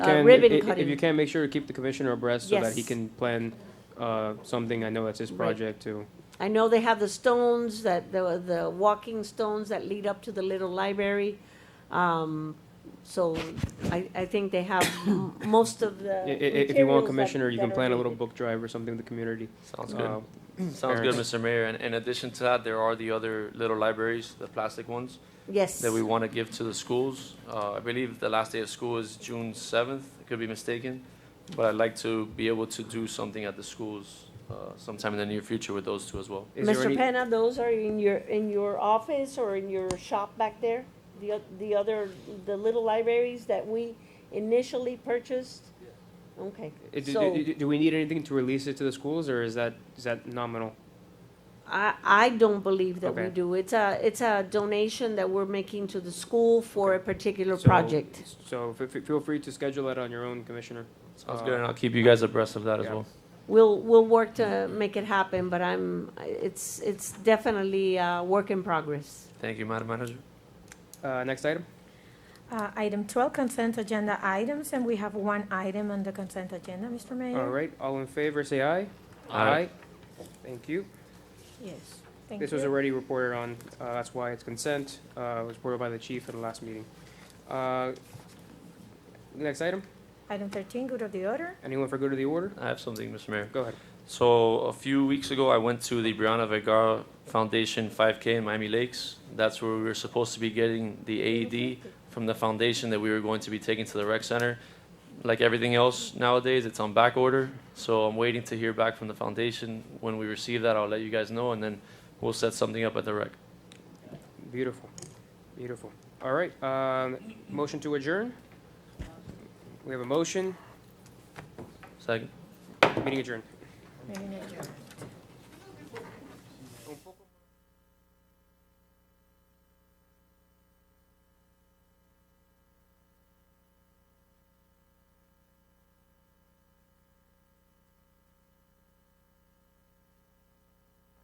Can- Uh, ribbon i- i- cutting. If you can, make sure to keep the commissioner abreast so that he Yes. can plan uh, something. I know that's his Right. project too. I know they have the stones that, the, the walking stones that lead up to the little library. Um, so I, I think they have m- most of the I- i- If you materials want, that- commissioner, you that can are plan a little needed. book drive or something with the community. Sounds Uh, good. Sounds fair good, enough. Mr. Mayor. And in addition to that, there are the other little libraries, the plastic ones, Yes. that we want to give to the schools. Uh, I believe the last day of school is June 7th. I could be mistaken, but I'd like to be able to do something at the schools uh, sometime in the near future with those two as well. Is there Mr. any- Penna, those are in your, in your office or in your shop back there? The, oth- the other, the little libraries that we initially purchased? Okay, i- do- so do- do- Do we need anything to release it to the schools or is that, is that nominal? I, I don't believe that we Okay. do. It's a, it's a donation that we're making to the school for a particular So- project. So f- f- feel free to schedule that on your own, commissioner. Sounds Uh, good, and I'll keep you guys abreast of that as yeah. well. We'll, we'll work to make it happen, but I'm, it's, it's definitely a work in progress. Thank you, Madam Manager. Uh, Next item? Uh, Item 12, consent agenda items, and we have one item on the consent agenda, Mr. Mayor. All right, all in favor, say aye. Aye. Thank you. Yes, thank This was you. already reported on, uh, that's why it's consent, uh, it was reported by the chief at the last meeting. Uh, Next item, Item 13, good of the order. anyone for good of the order? I have something, Mr. Mayor. Go ahead. So a few weeks ago, I went to the Brianna Vergara Foundation 5K in Miami Lakes. That's where we were supposed to be getting the AED from the foundation that we were going to be taking to the rec center. Like everything else nowadays, it's on back order. So I'm waiting to hear back from the foundation. When we receive that, I'll let you guys know, and then we'll set something up at the rec. Beautiful, beautiful. All right, um, motion to adjourn? We have a motion, Second. meeting adjourned. Meeting adjourned.